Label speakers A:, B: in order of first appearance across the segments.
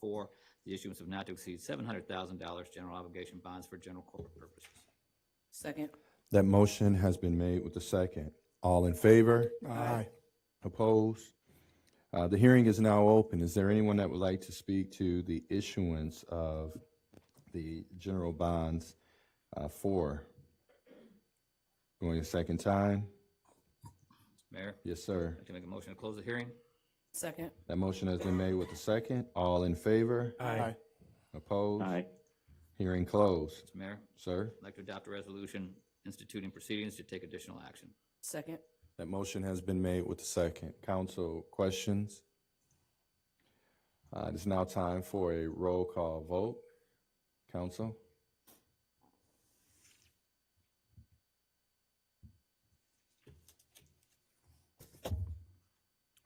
A: four, the issuance of not to exceed seven hundred thousand dollars general obligation bonds for general corporate purposes.
B: Second.
C: That motion has been made with the second. All in favor?
D: Aye.
C: Opposed? Uh, The hearing is now open. Is there anyone that would like to speak to the issuance of the general bonds uh, for? Going a second time?
A: Mayor,
C: Yes, sir.
A: I'd like to make a motion to close the hearing.
B: Second.
C: That motion has been made with the second. All in favor?
D: Aye.
C: Opposed?
E: aye,
C: Hearing closed.
A: Mr. Mayor,
C: Sir,
A: I'd like to adopt a resolution instituting proceedings to take additional action.
B: Second.
C: that motion has been made with the second. Council questions? Uh, It is now time for a roll call vote. Council?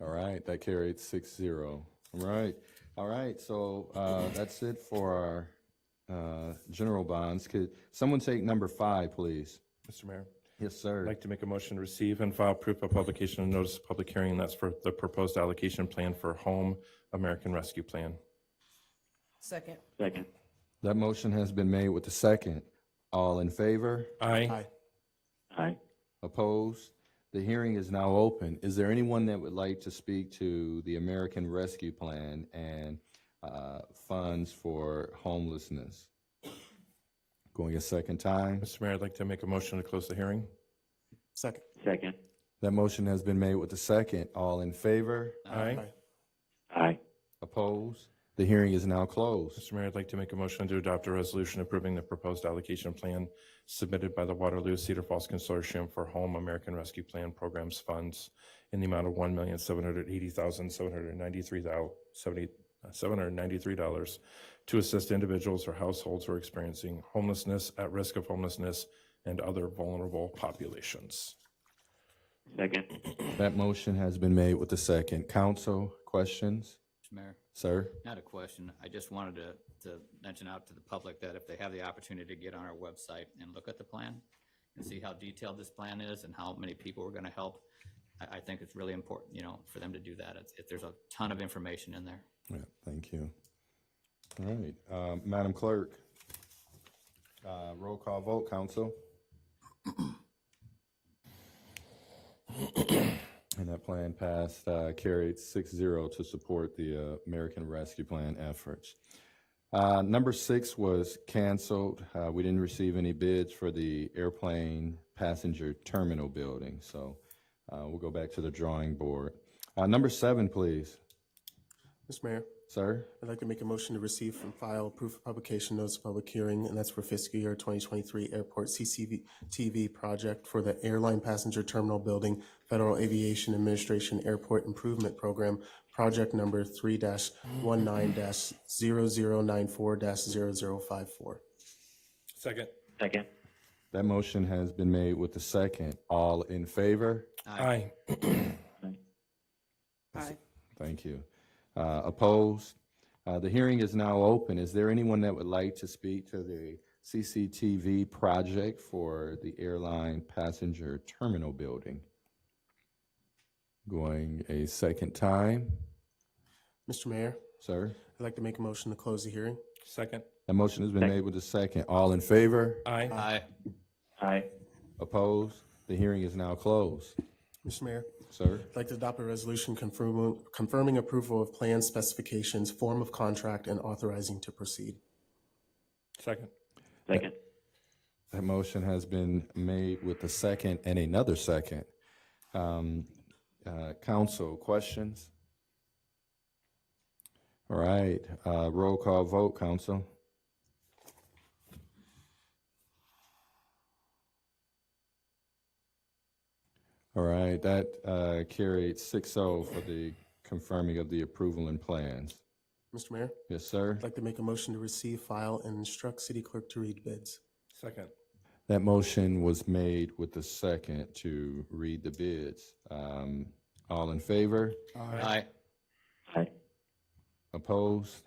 C: All right, that carried six zero. All right, all right, so uh, that's it for our uh, general bonds. Could someone take number five, please?
D: Mr. Mayor,
C: Yes, sir.
D: I'd like to make a motion to receive and file proof of publication and notice of public hearing. That's for the proposed allocation plan for Home American Rescue Plan.
B: Second.
E: second,
C: That motion has been made with the second. All in favor?
D: Aye.
E: aye,
C: Opposed? The hearing is now open. Is there anyone that would like to speak to the American Rescue Plan and uh, funds for homelessness? Going a second time?
D: Mr. Mayor, I'd like to make a motion to close the hearing.
F: Second.
E: second,
C: That motion has been made with the second. All in favor?
A: Uh,
D: Aye.
E: aye,
C: Opposed? The hearing is now closed.
D: Mr. Mayor, I'd like to make a motion to adopt a resolution approving the proposed allocation plan submitted by the Waterloo Cedar Falls Consortium for Home American Rescue Plan Programs Funds in the amount of one million, seven hundred eighty thousand, seven hundred ninety-three dollars to assist individuals or households who are experiencing homelessness, at risk of homelessness, and other vulnerable populations.
E: second,
C: That motion has been made with the second. Council, questions?
A: Mr. Mayor,
C: Sir?
A: not a question. I just wanted to, to mention out to the public that if they have the opportunity to get on our website and look at the plan and see how detailed this plan is and how many people we're going to help, I, I think it's really important, you know, for them to do that. It's, it, there's a ton of information in there.
C: Yeah, thank you. All right, um, Madam Clerk. Uh, Roll call vote, Council. And that plan passed, uh, carried six zero to support the uh, American Rescue Plan efforts. Uh, Number six was canceled. Uh, We didn't receive any bids for the airplane passenger terminal building, so uh, we'll go back to the drawing board. Uh, Number seven, please,
F: Mr. Mayor,
C: sir.
F: I'd like to make a motion to receive and file proof of publication notice of public hearing, and that's for fiscal year 2023 airport CCTV TV project for the Airline Passenger Terminal Building Federal Aviation Administration Airport Improvement Program, project number 3-19-0094-0054.
D: Second.
E: second,
C: That motion has been made with the second. All in favor?
D: Aye.
B: Aye.
C: Thank you. Uh, Opposed? Uh, The hearing is now open. Is there anyone that would like to speak to the CCTV project for the airline passenger terminal building? Going a second time,
F: Mr. Mayor,
C: sir?
F: I'd like to make a motion to close the hearing.
D: Second.
C: That motion has been made with the second. All in favor?
D: Aye.
A: Aye.
E: aye,
C: Opposed? The hearing is now closed,
F: Mr. Mayor?
C: sir?
F: I'd like to adopt a resolution confirming, confirming approval of plan specifications, form of contract, and authorizing to proceed.
D: Second.
E: second,
C: That motion has been made with the second and another second. Um, uh, Council, questions? All right, uh, roll call vote, council. All right, that uh, carried 6-0 for the confirming of the approval and plans.
F: Mr. Mayor,
C: Yes, sir?
F: I'd like to make a motion to receive, file, and instruct city clerk to read bids.
D: Second.
C: That motion was made with the second to read the bids. Um, All in favor?
A: Aye.
E: aye,
C: Opposed?